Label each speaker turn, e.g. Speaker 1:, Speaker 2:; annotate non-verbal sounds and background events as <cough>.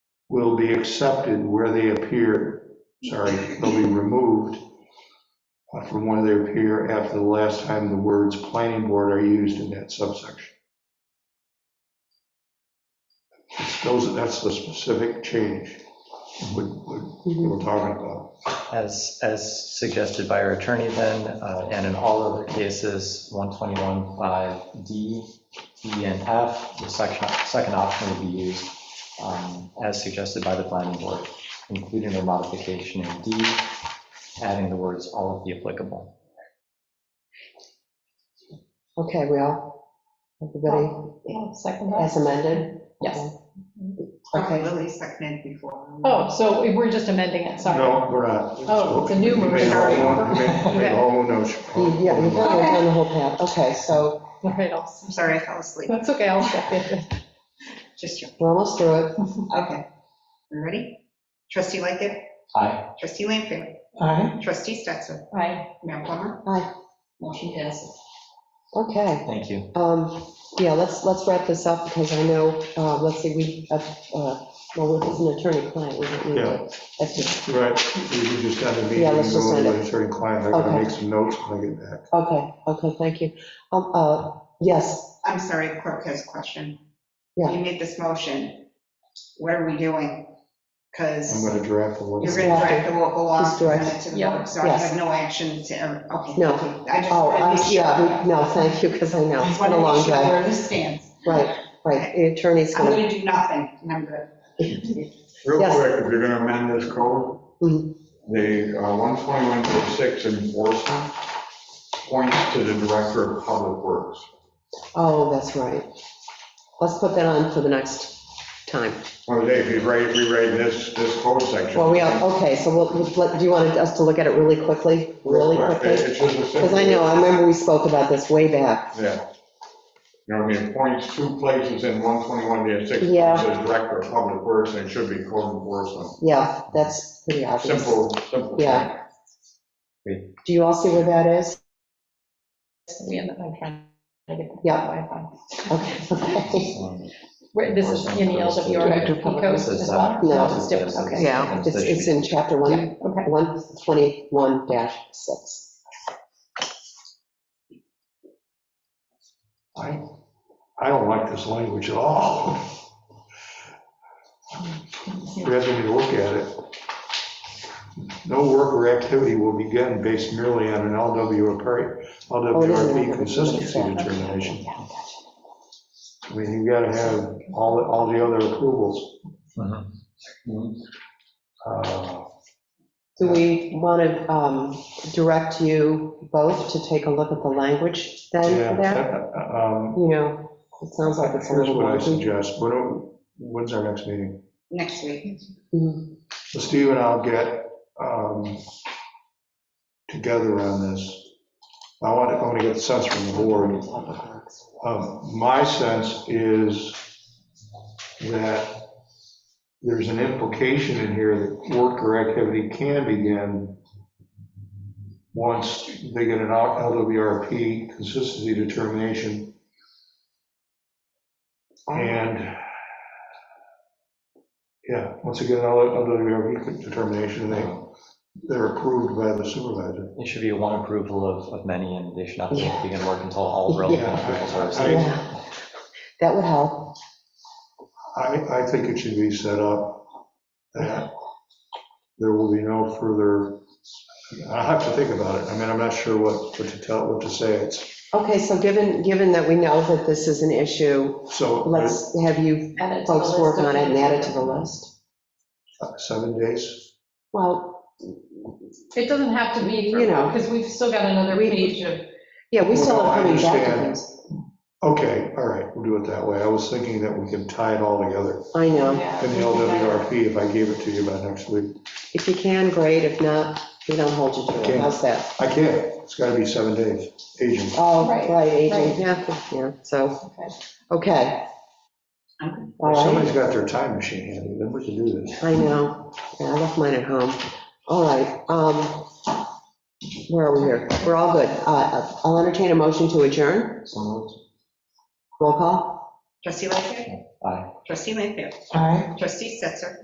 Speaker 1: will be accepted where they appear, sorry, they'll be removed uh, from where they appear after the last time the words planning board are used in that subsection. Those, that's the specific change we- we we were talking about.
Speaker 2: As, as suggested by our attorney then, uh, and in all other cases, 121.5D, E, and F, the section, second option would be used um, as suggested by the planning board, including a modification in D, adding the words all of the applicable.
Speaker 3: Okay, we all, everybody
Speaker 4: Second
Speaker 3: as amended?
Speaker 4: Yes.
Speaker 3: Okay,
Speaker 5: Lily seconded before.
Speaker 4: Oh, so we're just amending it, sorry.
Speaker 1: No, we're not.
Speaker 4: Oh, it's a new
Speaker 1: You made a whole
Speaker 4: motion.
Speaker 1: one- you made- you made a whole notion.
Speaker 3: You- yeah, you've already done the whole path, okay, so
Speaker 4: All right, I'll,
Speaker 5: I'm sorry, I fell asleep.
Speaker 4: that's okay, I'll second <laughs> it.
Speaker 5: Just you.
Speaker 3: we're almost through it.
Speaker 5: Okay. You ready? Trustee Lightgev,
Speaker 2: Aye.
Speaker 5: trustee Lanfair,
Speaker 3: Aye.
Speaker 5: trustee Stetser,
Speaker 4: Aye.
Speaker 5: Mayor Plummer.
Speaker 3: Aye,
Speaker 5: Motion passes.
Speaker 3: okay,
Speaker 2: Thank you.
Speaker 3: um, yeah, let's, let's wrap this up, because I know, uh, let's see, we, uh, uh, well, it's an attorney-client, we don't need
Speaker 1: Yeah.
Speaker 3: to, that's just,
Speaker 1: Right, we we just got a meeting,
Speaker 3: Yeah, let's just
Speaker 1: going
Speaker 3: end it.
Speaker 1: with attorney client, I gotta
Speaker 3: Okay.
Speaker 1: make some notes when I get back.
Speaker 3: okay, okay, thank you. Um, uh, yes,
Speaker 5: I'm sorry, the clerk has a question.
Speaker 3: Yeah.
Speaker 5: You made this motion. What are we doing?
Speaker 1: I'm
Speaker 5: Because
Speaker 1: gonna draft a little.
Speaker 5: you're going to draft the local law
Speaker 3: Just
Speaker 5: and
Speaker 3: direct.
Speaker 5: send it to the
Speaker 4: Yeah.
Speaker 5: board, so I
Speaker 3: Yes.
Speaker 5: have no action to, um, okay.
Speaker 3: No.
Speaker 5: thank you. I just
Speaker 3: oh,
Speaker 5: wanted
Speaker 3: I,
Speaker 5: to be sure.
Speaker 3: yeah, we- no, thank you, because I know, it's
Speaker 5: I just
Speaker 3: been
Speaker 5: wanted
Speaker 3: a
Speaker 5: to
Speaker 3: long
Speaker 5: be sure
Speaker 3: day.
Speaker 5: where this stands.
Speaker 3: Right, right, the attorney's
Speaker 5: I'm
Speaker 3: gonna,
Speaker 5: going to do nothing, and I'm good.
Speaker 6: Real
Speaker 3: Yes.
Speaker 6: quick, if you're gonna amend this code,
Speaker 3: Mhm.
Speaker 6: the uh, 121.6 enforcement points to the director of public works.
Speaker 3: oh, that's right. Let's put that on for the next time.
Speaker 6: Well, Dave, if you write, rewrite this, this code section.
Speaker 3: Well, we are, okay, so we'll, we'll let- do you want us to look at it really quickly, really
Speaker 6: Real quick, it-
Speaker 3: quickly?
Speaker 6: It's just a simple.
Speaker 3: Because I know, I remember we spoke about this way back.
Speaker 6: Yeah. You know, what I mean, it points two places in 121.6,
Speaker 3: Yeah.
Speaker 6: it says director of public works, and it should be code enforcement.
Speaker 3: Yeah, that's pretty obvious.
Speaker 6: Simple, simple.
Speaker 3: Yeah.
Speaker 2: Great.
Speaker 3: Do you all see where that is? <laughs>
Speaker 4: We end up on trying to get.
Speaker 3: Yeah.
Speaker 4: Wi-Fi.
Speaker 3: Okay.
Speaker 2: Um,
Speaker 4: Wait, This is in the
Speaker 2: Director
Speaker 4: LWRP
Speaker 2: of Public
Speaker 4: code
Speaker 2: Works is,
Speaker 4: as
Speaker 2: uh,
Speaker 4: well?
Speaker 3: No.
Speaker 4: It's different, Okay.
Speaker 3: Yeah, it's, it's in chapter one,
Speaker 4: Okay.
Speaker 3: one twenty-one dash six.
Speaker 1: I, I don't like this language at all. We have to look at it. No work or activity will begin based merely on an LWRP,
Speaker 3: Oh, it is an
Speaker 1: LWRP
Speaker 3: LWRP,
Speaker 1: consistency
Speaker 3: yeah.
Speaker 1: determination. I mean, you gotta have all, the- all the other approvals.
Speaker 2: Mhm.
Speaker 1: Uh,
Speaker 3: Do we want to, um, direct you both to take a look at the language then
Speaker 1: Yeah.
Speaker 3: for that?
Speaker 1: uh, um,
Speaker 3: You know, it sounds like it's a
Speaker 1: Here's
Speaker 3: little
Speaker 1: what I
Speaker 3: wonky.
Speaker 1: suggest. When do- When's our next meeting?
Speaker 5: Next week.
Speaker 3: Mhm.
Speaker 1: So Steve and I'll get um, together on this. I want to, I want to get the sense from the board. Um, My sense is that there's an implication in here that work or activity can begin once they get an LWRP consistency determination and yeah, once again, LWRP determination, they, they're approved by the supervisor.
Speaker 2: It should be one approval of, of many, and they should not be able to begin work until all relevant
Speaker 1: Yeah.
Speaker 2: approvals are. received.
Speaker 3: Yeah. That would help.
Speaker 1: I, I think it should be set up that there will be no further, I'll have to think about it. I mean, I'm not sure what, what to tell, what to say. It's,
Speaker 3: Okay, so given, given that we know that this is an issue,
Speaker 1: so
Speaker 3: let's have you
Speaker 4: Add it to the
Speaker 3: folks work
Speaker 4: list
Speaker 3: on it
Speaker 4: of
Speaker 3: and add it to
Speaker 4: things.
Speaker 3: the list.
Speaker 1: uh, seven days.
Speaker 3: Well,
Speaker 4: It doesn't have to be,
Speaker 3: You know.
Speaker 4: because we've still got another
Speaker 3: We-
Speaker 4: page of,
Speaker 3: yeah, we still
Speaker 1: Well, I
Speaker 3: are coming back to
Speaker 1: understand.
Speaker 3: things.
Speaker 1: Okay, all right, we'll do it that way. I was thinking that we could tie it all together
Speaker 3: I know.
Speaker 4: yeah.
Speaker 1: in the LWRP if I gave it to you by next week.
Speaker 3: If you can, great. If not, we don't hold you to
Speaker 1: Okay.
Speaker 3: it. How's that?
Speaker 1: I can't. It's gotta be seven days, agent.
Speaker 3: Oh,
Speaker 4: Right,
Speaker 3: right,
Speaker 4: right.
Speaker 3: aging, yeah, yeah, so,
Speaker 4: Okay.
Speaker 3: okay.
Speaker 5: Okay.
Speaker 3: All right,
Speaker 1: Somebody's got their time machine handy, then we can do this.
Speaker 3: I know. Yeah, I left mine at home. All right, um, where are we here? We're all good. Uh, I'll entertain a motion to adjourn.
Speaker 2: So moved.
Speaker 3: Roll call.
Speaker 5: Trustee Lightgev,
Speaker 2: Aye.
Speaker 5: trustee Lanfair,
Speaker 3: All right.
Speaker 5: trustee Stetser,